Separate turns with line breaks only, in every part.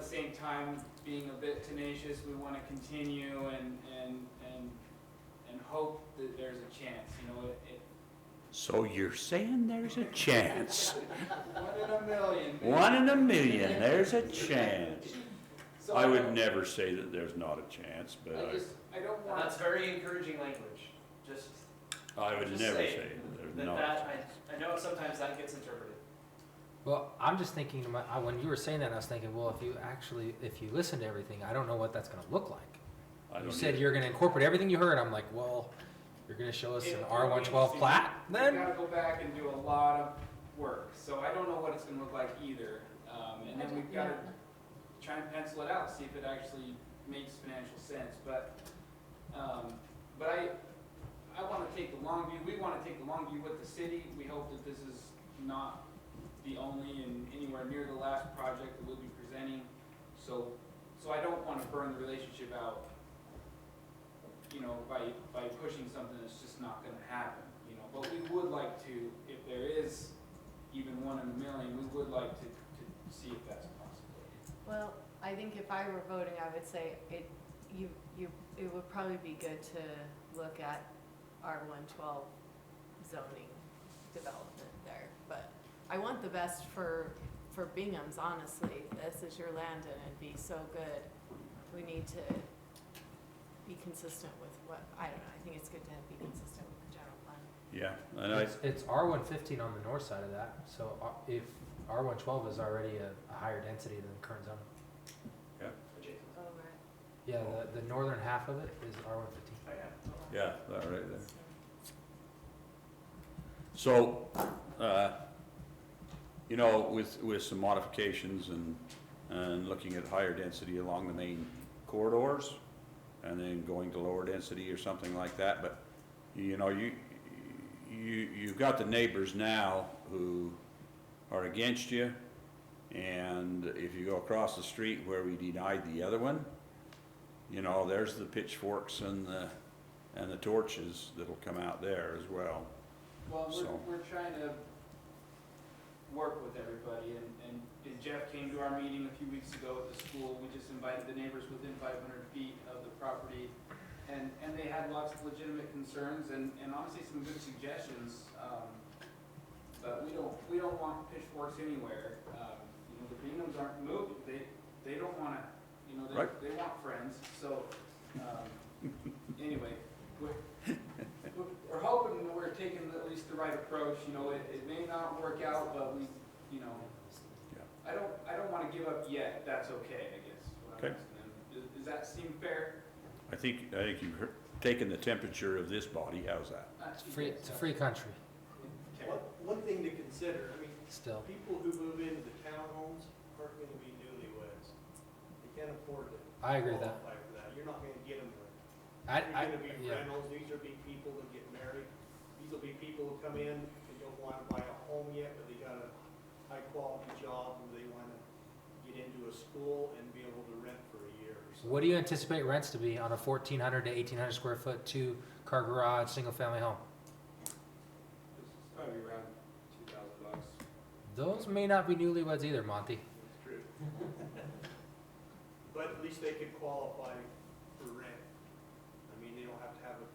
same time, being a bit tenacious, we want to continue and, and, and, and hope that there's a chance, you know, it, it,
So you're saying there's a chance?
one in a million. maybe.
One in a million, there's a chance.
So
I
don't-
would never say that there's not a chance, but
I just, I don't
And
want,
that's very encouraging language, just
I, I would
Just
never
say
say that
that,
there's not.
that, I, I know sometimes that gets interpreted.
Well, I'm just thinking, to my- I- when you were saying that, I was thinking, well, if you actually, if you listen to everything, I don't know what that's gonna look like.
I
You
don't
said
either.
you're gonna incorporate everything you heard, I'm like, well, you're gonna show us an
It'll
R one twelve
be
plat,
we
then?
gotta go back and do a lot of work, so I don't know what it's gonna look like either. Um, and
I
then
don't-
we've gotta
yeah.
try and pencil it out, see if it actually makes financial sense, but, um, but I, I wanna take the long view, we wanna take the long view with the city, we hope that this is not the only and anywhere near the last project that we'll be presenting, so, so I don't wanna burn the relationship out, you know, by, by pushing something that's just not gonna happen, you know, but we would like to, if there is even one in a million, we would like to, to see if that's possible.
Well, I think if I were voting, I would say it, you, you, it would probably be good to look at R one twelve zoning development there. But I want the best for, for Bingham's, honestly. This is your land and it'd be so good. We need to be consistent with what, I don't know, I think it's good to be consistent with the general plan.
Yeah, and I,
It's, it's R one fifteen on the north side of that, so uh, if R one twelve is already a, a higher density than the current zone.
Jason.
Oh, right.
Yeah, the, the northern half of it is R one fifteen.
Oh, yeah.
yeah, that right there. So, uh, you know, with, with some modifications and, and looking at higher density along the main corridors, and then going to lower density or something like that, but, you know, you, you, you've got the neighbors now who are against you, and if you go across the street where we denied the other one, you know, there's the pitchforks and the, and the torches that'll come out there as well.
Well,
So-
we're, we're trying to work with everybody, and, and- and Jeff came to our meeting a few weeks ago at the school, we just invited the neighbors within five hundred feet of the property, and, and they had lots of legitimate concerns, and, and honestly, some good suggestions, um, but we don't, we don't want pitchforks anywhere, um, you know, the Binghams aren't moved, they, they don't wanna, you know,
Right.
they, they want friends, so, um, anyway, we're, we're hoping that we're taking at least the right approach, you know, it, it may not work out, but we, you know,
Yeah.
I don't, I don't wanna give up yet, that's okay, I guess, is what I'm
Okay.
asking them. Does, does that seem fair?
I think, I think you've heard- taken the temperature of this body, how's that?
Uh,
It's free, it's a free country,
Okay.
One, one thing to consider, I mean,
still.
people who move into the townhomes aren't gonna be newlyweds. They can't afford to.
I agree with that.
qualify for that. You're not gonna get them there.
I,
They're
I,
gonna be
yeah.
rentals, these will be people that get married, these will be people who come in and don't wanna buy a home yet, but they got a high-quality job, and they wanna get into a school and be able to rent for a year or so.
What do you anticipate rents to be on a fourteen hundred to eighteen hundred square foot, two car garage, single family home?
It's Probably around two thousand bucks.
Those may not be newlyweds either, Monty.
That's true. But at least they could qualify for rent. I mean, they don't have to have a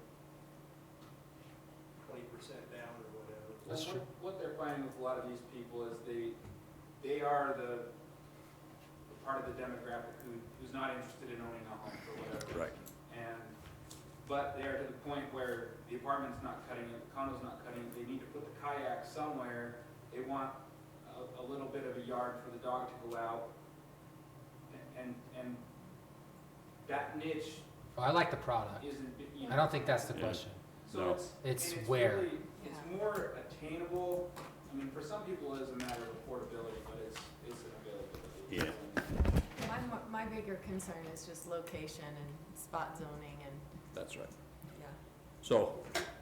twenty percent down or whatever.
Well,
That's
what-
true.
What they're finding with a lot of these people is they, they are the, the part of the demographic who, who's not interested in owning a home for whatever.
Right.
And, but they're to the point where the apartment's not cutting it, the condo's not cutting it, they need to put the kayak somewhere. They want a, a little bit of a yard for the dog to go out. And, and that niche
Oh, I like the product.
isn't, you know.
I don't think that's the
Yeah.
question.
So
No.
it's,
It's
and it's
where.
really- It's more attainable, I mean, for some people it is a matter of affordability, but it's, it's an availability.
Yeah.
My, mo- my bigger concern is just location and spot zoning and,
That's right.
yeah.
So,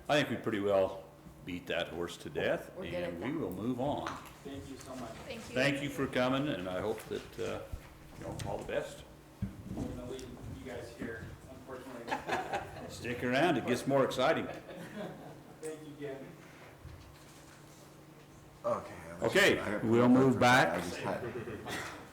I think we pretty well beat that horse to death,
We're good at
and we will move on.
Thank you so much.
Thank you.
Thank you for coming, and I hope that, uh, you know, all the best.
I'm gonna leave you guys here, unfortunately.
Stick around, it gets more exciting.
Thank you again.
Okay. I was-
Okay,
I-
we'll move
I
back.
just had-